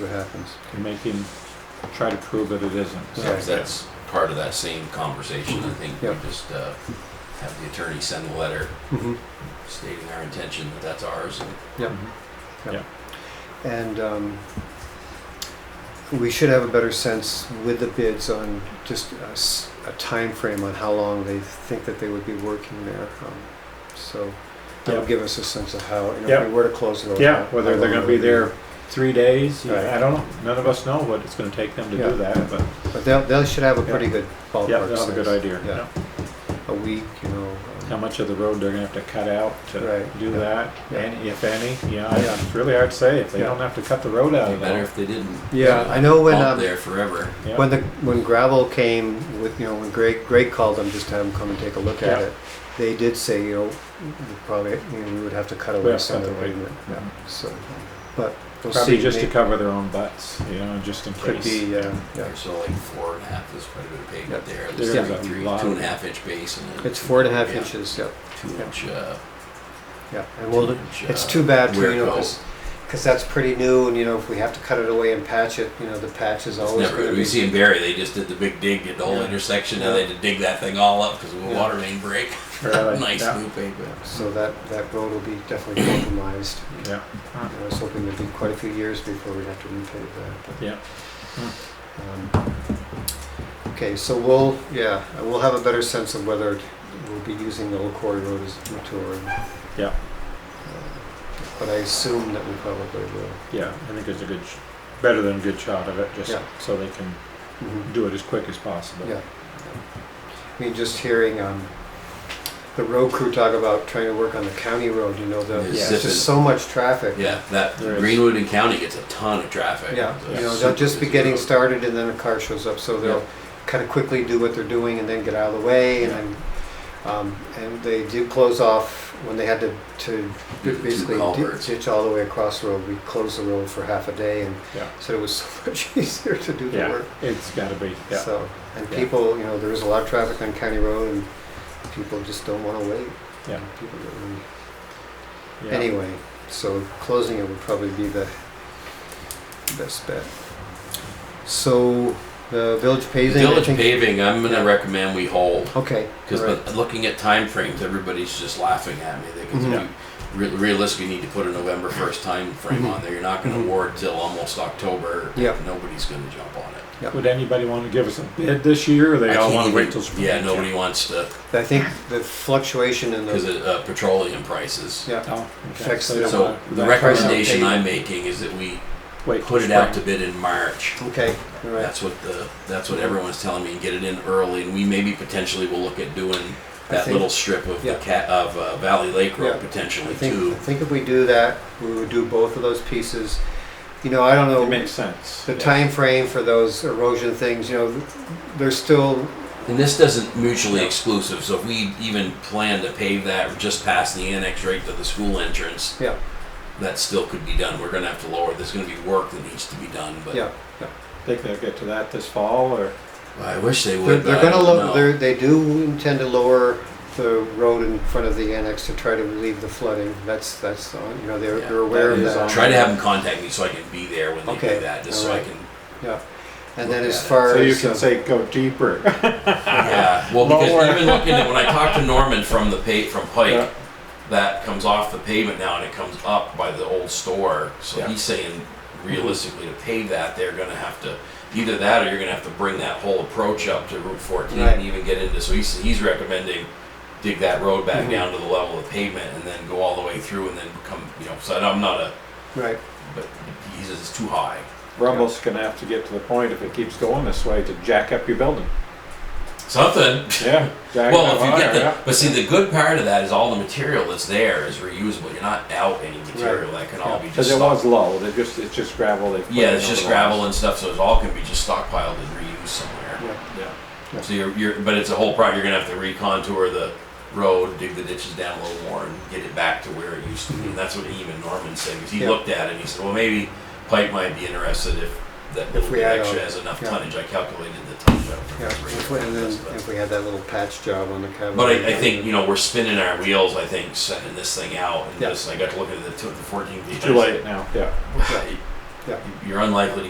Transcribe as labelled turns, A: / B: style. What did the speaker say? A: what happens.
B: to make him try to prove that it isn't.
A: Yeah.
B: So,
C: Because that's part of that same conversation. I think we
A: Mm-hmm. Yeah.
C: just uh, have the attorney send a letter
A: Mm-hmm.
C: stating our intention that that's ours. and
A: And um, we should have a better sense with the bids on just a, s- a time frame on how long they think that they would be working there. Um, so that'll
B: Yeah.
A: give us a sense of how, you know,
B: Yeah.
A: if we were to close it.
B: Yeah, whether they're gonna be there three days,
A: Right.
B: I don't know, none of us know what it's gonna take them to
A: Yeah.
B: do that, but
A: But they'll, they should have a
B: Yeah.
A: pretty good ballpark.
B: yeah, that's a
A: sense.
B: good idea.
A: Yeah.
B: Yeah.
A: A week, you know.
B: How
A: um,
B: much of the road they're gonna have to cut out to
A: Right.
B: do
A: Yeah.
B: that,
A: Yeah.
B: and if any, yeah,
A: Yeah.
B: it's really hard to say, if they
A: Yeah.
B: don't have to cut the road out
C: It'd
B: of
C: be better
B: there.
C: if they didn't.
A: Yeah, I know when, um,
C: Bump there forever.
B: Yeah.
A: When the when gravel came with you know when Greg Greg called them just to have them come and take a look at
B: Yeah.
A: it, they did say you know we probably you know, we would have to cut away
B: Yeah,
A: some of the
B: cut away.
A: pavement. Yeah. So, but we'll
B: Probably
A: see.
B: just to
A: May-
B: cover their own butts, you know, just in
A: could
B: case.
A: be uh, yeah.
C: There's only like four and a half, there's quite a bit of pavement
A: Yeah.
C: there.
B: There
C: There's
A: is
C: like
B: a
C: three,
B: lot.
C: two and a half inch base and a
A: It's four and a half
C: Yeah.
A: inches. Yep.
C: two inch, uh,
A: Yeah. And
C: two
A: we'll.
C: inch.
A: It's
C: uh,
A: too bad for you know
C: wear coat.
A: because that's pretty new and you know if we have to cut it away and patch it you know the patch is
C: It's
A: always
C: never-
A: going to
C: we
A: be.
C: see in Barry, they just did the big dig at the whole
B: Yeah.
C: intersection,
A: Yeah.
C: and they had to dig that thing all up because of a
A: Yeah.
C: water main break.
B: Really,
C: nice
B: yeah,
C: new pavement.
A: So that that road will be definitely compromised.
B: Yeah,
A: I was hoping it'd be quite a few years before we'd have to repave that. But
B: yeah, Hmm.
A: Um, Okay, so we'll, yeah, we'll have a better sense of whether we'll be using the LaCory Road as a tour. Uh,
B: Yeah.
A: But I assume that we probably will.
B: yeah, I think it's a good, sh- better than a good shot of it, just
A: Yeah.
B: so they can do it as quick as possible.
A: Yeah. I mean, just hearing, um, the road crew talk about trying to work on the county road, you know, the,
C: Yeah,
A: there's
C: zip it.
A: just so much traffic.
C: Yeah, that
B: There is.
C: Greenwood and County gets a ton of traffic.
A: Yeah,
C: It's
A: you
C: a
A: know, they'll
C: super
A: just be
C: busy
A: getting
C: road.
A: started and then a car shows up, so they'll kind of quickly do what they're doing and then get out of the way and then, um, and they do close off when they had to, to
C: Do the two
A: basically di-
C: culverts.
A: ditch all the way across the road, we closed the road for half a day and
B: Yeah.
A: said it was so much easier to do the
B: Yeah,
A: work.
B: it's gotta be, yeah,
A: So, and
B: Yeah.
A: people, you know, there is a lot of traffic on County Road and people just don't want to wait.
B: yeah.
A: People get really
B: yeah.
A: Anyway, so closing it would probably be the best bet. So the village paving. I
C: Village
A: think-
C: paving, I'm gonna
A: Yeah.
C: recommend we hold
A: Okay.
C: because
A: all right.
C: looking at timeframes, everybody's just laughing at me. They can
B: Mm-hmm.
A: Mhm.
C: you re- realistically need to put a November first time frame
A: Mhm.
B: Mm-hmm.
C: on there. You're not gonna
A: Mhm.
C: award till almost October.
A: Yep.
C: Nobody's gonna jump on it.
B: Would anybody want to give us a bid this year, or they
C: I
B: all
C: can't
B: want to
C: even-
B: wait till spring?
C: Yeah, nobody wants to
A: I think the fluctuation in
C: because
A: the
C: of uh, petroleum prices.
A: yeah.
B: Oh, okay.
A: Fix
B: they
A: the-
B: don't
C: So
B: want-
C: the
B: that's why they don't
C: recommendation
A: pay-
C: I'm making is that we
B: Wait
C: put
B: till
C: it out to
B: spring.
C: bid in March.
A: Okay. All right.
C: That's what the, that's what everyone's telling me, and get it in early, and we maybe potentially will look at doing
A: I
C: that
A: think-
C: little strip of the
A: yeah.
C: cat, of uh, Valley Lake Road
A: Yeah. I
C: potentially
A: think
C: too.
A: I think if we do that, we would do both of those pieces. You know, I don't know
B: It makes sense.
A: the
B: Yeah.
A: time frame for those erosion things. You know, th- they're still
C: And this doesn't mutually exclusive, so if we even plan to pave that just past the annex right to the school entrance,
A: yeah
C: that still could be done. We're gonna have to lower, there's gonna be work that needs to be done, but
A: yeah. yeah.
B: Think they'll get to that this fall, or?
C: I wish they
A: They're,
C: would,
A: they're
C: but I
A: gonna
C: don't
A: lower,
C: know.
A: they're, they do intend to lower the road in front of the annex to try to relieve the flooding. That's, that's, on- you know, they're,
C: Yeah,
A: they're aware
B: that
A: of
B: is on.
A: that.
C: Try to have them contact me so I can be there when they
A: Okay,
C: do that, just so I
A: alright.
C: can,
A: Yeah. And then
C: look
A: as
C: at it.
A: far
B: So you
A: as,
B: can
A: uh,
B: say go deeper.
C: yeah. Well, because
B: Lower.
C: even looking at, when I talked to Norman from the pa, from Pike,
B: Yeah.
C: that comes off the pavement now and it comes up by the old store. So
B: Yeah.
C: he's saying realistically to pave that, they're gonna have to, either that or you're gonna have to bring that whole approach up to Route fourteen
A: Right.
C: and even get into, so he's, he's recommending dig that road back
B: Mm-hmm.
A: Mhm.
C: down to the level of pavement and then go all the way through and then come, you know, so I'm not a,
A: right,
C: but he says it's too high.
B: Rumble's gonna have to get to the point, if it keeps going this way, to jack up your building.
C: Something.
B: Yeah. jack it
C: Well,
B: up
C: if you
B: higher,
C: get the,
B: yeah.
C: but see, the good part of that is all the material that's there is reusable. You're not out any material that can all be just.
B: Cause it
C: stock-
B: was low, they just, it's just gravel they. put
C: Yeah,
B: in
C: it's
B: over
C: just
B: the last-
C: gravel and stuff, so it all can be just stockpiled and reused somewhere.
A: yeah,
B: Yeah.
A: Yeah.
C: So you're, you're, but it's a whole project. You're gonna have to recontour the road, dig the ditches down a little more, and get it back to where it used to be. And that's what even Norman said, because he
A: Yeah.
C: looked at it and he said, well, maybe Pike might be interested if that little
A: we
C: bit
A: add
C: extra
A: on-
C: has enough
A: yeah.
C: tonnage. I calculated the tonnage out
A: yeah.
C: from
A: If we-
C: three.
A: And then if we had that little patch job on the cabin.
C: But I, I think, you know, we're spinning our wheels, I think, sending this thing out, and
A: Yeah.
C: just, I got to look at the two- the fourteen pages.
B: Too late now, yeah.
C: Right.
A: Yeah.
C: You're unlikely to